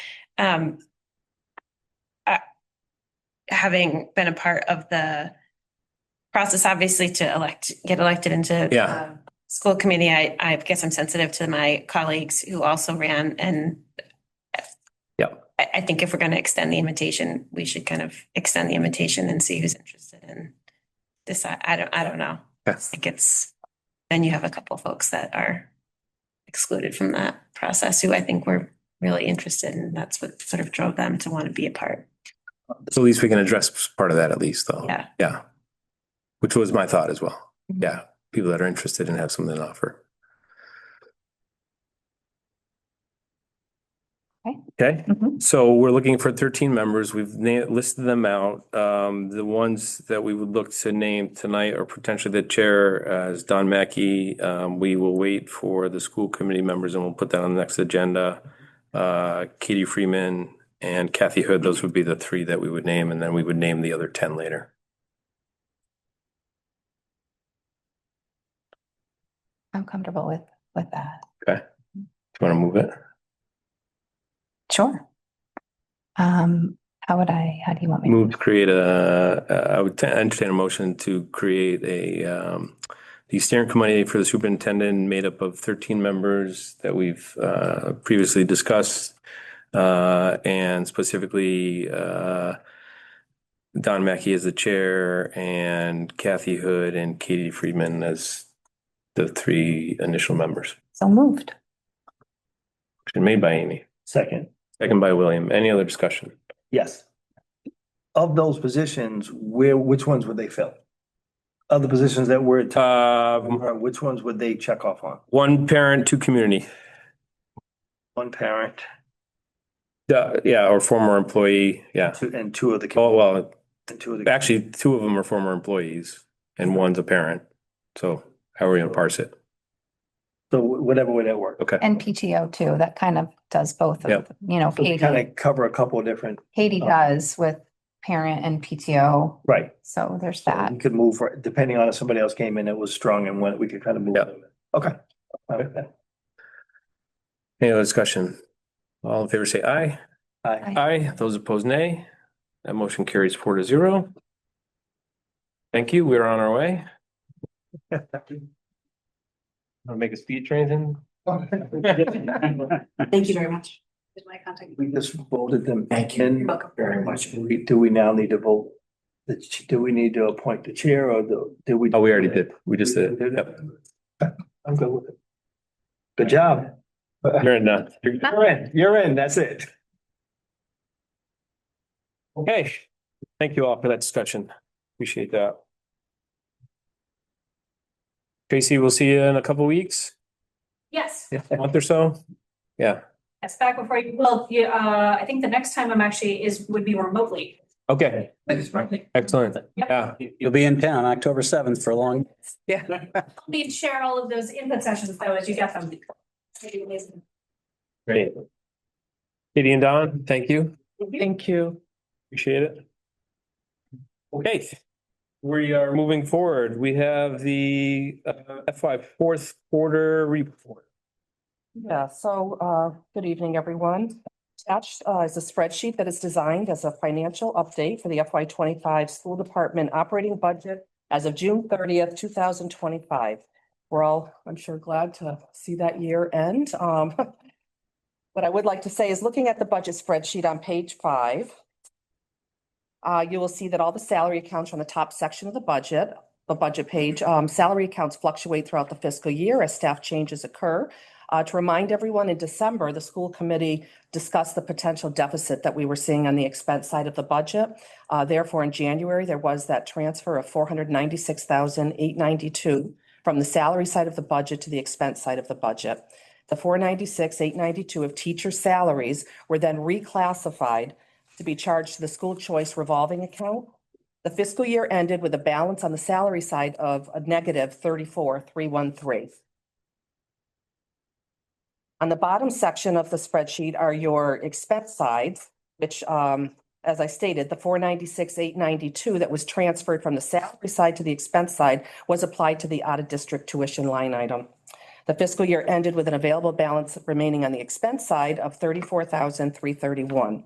um, I- having been a part of the process, obviously to elect, get elected into Yeah. uh, school committee, I, I guess I'm sensitive to my colleagues who also ran and Yep. I, I think if we're going to extend the invitation, we should kind of extend the invitation and see who's interested in this. I, I don't, I don't know. I Okay. think it's, then you have a couple folks that are excluded from that process who I think were really interested and that's what sort of drove them to want to be a part. So at least we can address part of that at least though. Yeah. Yeah. Which was my thought as well. Mhm. Yeah. People that are interested and have something to offer. Okay. Okay, Mhm. so we're looking for thirteen members. We've na- listed them out. Um, the ones that we would look to name tonight are potentially the chair uh, is Don Mackey. Um, we will wait for the school committee members and we'll put that on the next agenda. Uh, Katie Freeman, and Kathy Hood, those would be the three that we would name, and then we would name the other ten later. I'm comfortable with, with that. Do you want to move it? Sure. Um, how would I, how do you want me? to- Move to create a, uh, I would entertain a motion to create a, um, the steering committee for the superintendent made up of thirteen members that we've, uh, previously discussed. Uh, and specifically, uh, Don Mackey as the chair and Kathy Hood and Katie Friedman as the three initial members. So moved. Motion made by Amy. Second, Second by William. Any other discussion? yes. Of those positions, where, which ones would they fill? Of the positions that were, at top, Um, uh, which ones would they check off on? one parent, two community. One parent Uh, yeah, or former employee. Yeah. two- and two of the, Oh, well, and two of the. actually, two of them are former employees and one's a parent. So how are we gonna parse it? So wh- whatever way that works. Okay. And PTO too. That kind of does both of, Yep. them. you know, So we kind Katie, of cover a couple of different, Katie Oh. does with parent and PTO. right. So there's So that. We could move, for- depending on if somebody else came in that was strong and went, we could kind of move. Yeah. them. Okay. Okay. Any other discussion? All in favor, say aye. Aye. Aye. Those opposed, nay. That motion carries four to zero. Thank you. We're on our way. Want to make a speech or anything? Thank you very much. Did my contact. We just voted them. Thank in. You're welcome. very much. We, do we now need to vote? the ch- Do we need to appoint the chair or the, did we? Oh, we already did. We just did. We did Yep. it? I'm good with it. Good job. You're in now. You're in, you're in, that's it. Okay, thank you all for that discussion. Appreciate that. Tracy, we'll see you in a couple weeks, Yes, a month or so. yes, back before you, well, yeah, uh, I think the next time I'm actually is, would be remotely. Okay, excellent. Yeah, You'll be in town October seventh for a long. Help Me share all of those input sessions though as you get them. Maybe amazing. great. Katie and Don, thank you. Thank you. Appreciate it. Okay, we are moving forward. We have the uh, FY fourth quarter report. Yeah, so, uh, good evening, everyone. Attached, uh, is a spreadsheet that is designed as a financial update for the FY twenty-five school department operating budget as of June thirtieth, two thousand twenty-five. We're all, I'm sure, glad to see that year end. Um, what I would like to say is looking at the budget spreadsheet on page five, uh, you will see that all the salary accounts are on the top section of the budget, the budget page. Um, salary accounts fluctuate throughout the fiscal year as staff changes occur. Uh, to remind everyone, in December, the school committee discussed the potential deficit that we were seeing on the expense side of the budget. Uh, therefore, in January, there was that transfer of four hundred ninety-six thousand eight ninety-two from the salary side of the budget to the expense side of the budget. The four ninety-six, eight ninety-two of teacher salaries were then reclassified to be charged to the school choice revolving account. The fiscal year ended with a balance on the salary side of a negative thirty-four, three one three. On the bottom section of the spreadsheet are your expense sides, which, um, as I stated, the four ninety-six, eight ninety-two that was transferred from the salary side to the expense side was applied to the out-of-district tuition line item. The fiscal year ended with an available balance remaining on the expense side of thirty-four thousand, three thirty-one.